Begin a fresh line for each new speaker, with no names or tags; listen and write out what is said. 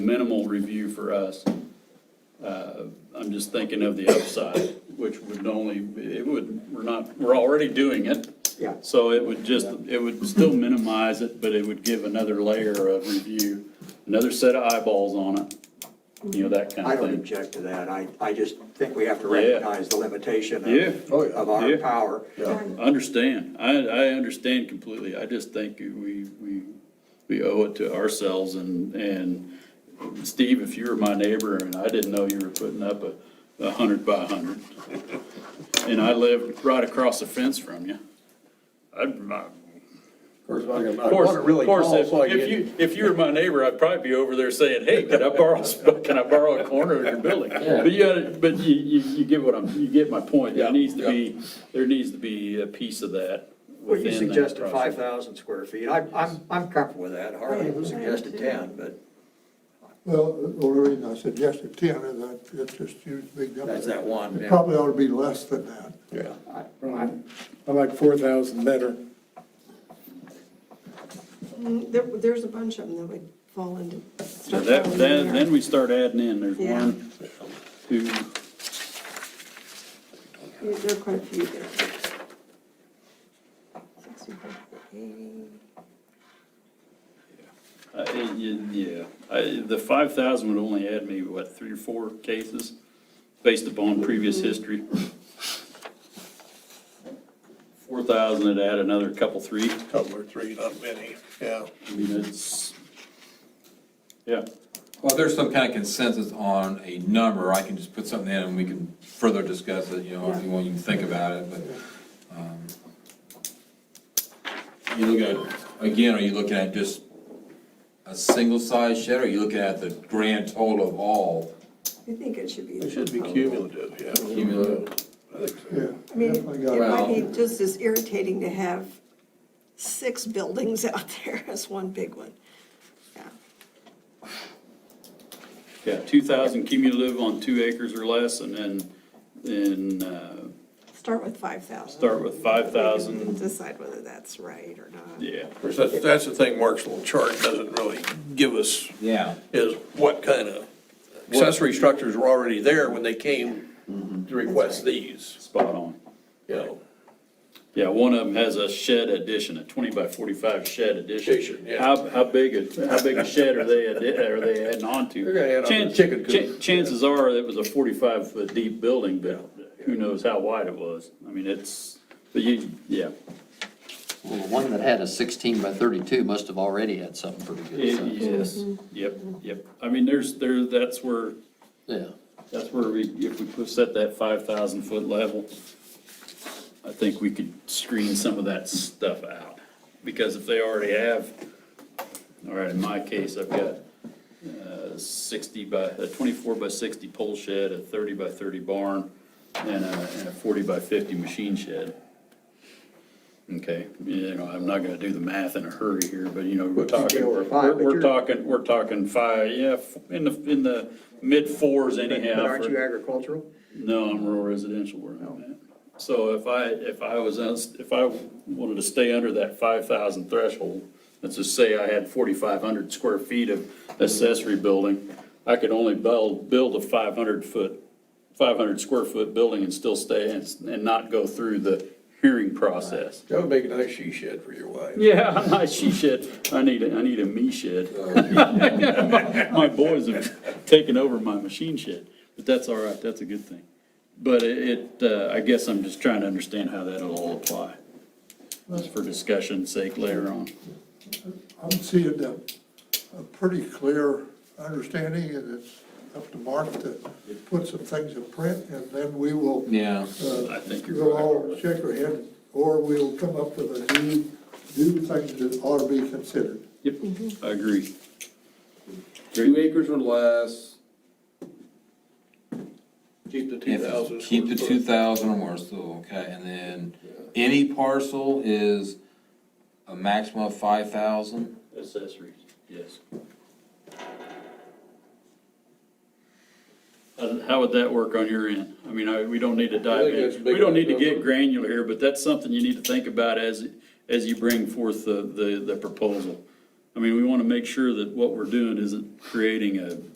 minimal review for us. Uh, I'm just thinking of the upside, which would only, it would, we're not, we're already doing it.
Yeah.
So it would just, it would still minimize it, but it would give another layer of review, another set of eyeballs on it, you know, that kind
I
of
don't
thing.
object to that. I, I just think we have to
Yeah.
recognize the limitation
Yeah.
of,
Oh, yeah.
of our
Yeah.
power.
Understand, I, I understand completely, I just think we, we, we owe it to ourselves and, and Steve, if you were my neighbor and I didn't know you were putting up a, a hundred by a hundred, and I lived right across the fence from you, I'd, my.
Of course, I can- I
Of course,
want it really
of course,
tall,
if-
so I
If
can,
you, if you were my neighbor, I'd probably be over there saying, hey, can I borrow, sp- can I borrow a corner of your building? But you, gotta- but you, you, you get what I'm, you get my point, there
Yeah,
needs to
yeah.
be, there needs to be a piece of that
Well, you
within that
suggested five
process.
thousand square feet. I, I'm, I'm comfortable with that. Harley suggested ten, but
Well, the only reason I suggested ten is that it's just huge, big number.
that's that one.
It
yeah.
probably ought to be less than that.
yeah.
I like four thousand better.
Mm, There, there's a bunch of them that would fall into.
So
start
that,
falling
then,
in
then
there.
we start adding in, there's
Yeah.
one, two,
There there are quite a few there. 65 to 80.
uh, y- yeah. I, the five thousand would only add maybe, what, three or four cases based upon previous history? Four thousand would add another couple, three.
Couple or three, not many, yeah.
I mean, it's, yeah,
Well, there's some kind of consensus on a number, I can just put something in and we can further discuss it, you know, if you want, you can think about it, but, um, you look at, again, are you looking at just a single size shed, or are you looking at the grand total of all?
I think it should be.
It should be cumulative, yeah.
Cumulative.
I think so.
Yeah.
I mean, it
definitely got-
might be just as irritating to have six buildings out there as one big one. Yeah.
yeah, two thousand cumulative on two acres or less, and then, then, uh,
Start with five thousand.
start with five thousand,
Decide whether that's right or not.
yeah.
Of course, that's, that's the thing, Mark's little chart doesn't really give us,
Yeah.
is what kind of accessory structures were already there when they came to request these,
Spot on.
you know?
Yeah, one of them has a shed addition, a twenty by forty-five shed addition.
Addition, yeah.
How, how big, a how big a shed are they, addi- are they adding on to?
They're gonna add on to
Chan-
chicken coop,
chan-
yeah.
Chances are, it was a forty-five foot deep building, but who knows how wide it was? I mean, it's, but you, yeah,
Well, the one that had a sixteen by thirty-two must have already had something pretty good.
It-
so,
yes, yep, yep. I mean, there's, there, that's where,
Yeah,
that's where we, if we put, set that five thousand foot level, I think we could screen some of that stuff out, because if they already have, all right, in my case, I've got, uh, sixty by, a twenty-four by sixty pole shed, a thirty by thirty barn, and a, and a forty by fifty machine shed. Okay, you know, I'm not gonna do the math in a hurry here, but you know, we're
But you
talking,
go over five,
we're,
but
we're
you're-
talking, we're talking five, yeah, f- in the, in the mid fours
But
anyhow.
but aren't
for-
you Oh. agricultural?
no, I'm rural residential where I'm at. So if I, if I was, us- if I wanted to stay under that five thousand threshold, let's just say I had forty-five hundred square feet of accessory building, I could only build, build a five hundred foot, five hundred square foot building and still stay and, s- and not go through the hearing process.
That would make a nice she shed for your wife.
Yeah, I'm not she shed, I need, a I need a me shed. My- My boys have taken over my machine shed, but that's all right, that's a good thing. But it, it, uh, I guess I'm just trying to understand how that'll all apply. That's for discussion's sake later on.
I'm seeing a, a pretty clear understanding, and it's up to Mark to put some things in print, and then we will.
Yeah.
uh,
I think you're
We'll
right.
all shake our head, or we'll come up with a new, new things that ought to be considered.
Yep, I agree.
Two acres or less,
Keep the two thousand.
If, keep the two thousand or more, still, okay, and then any parcel is a maximum of five thousand?
Accessories, yes. And Uh, How would that work on your end? I mean, I, we don't need to dive
that's
in,
big
we don't need to
enough
get
number.
granular here, but that's something you need to think about as, as you bring forth the, the, the proposal. I mean, we want to make sure that what we're doing isn't creating a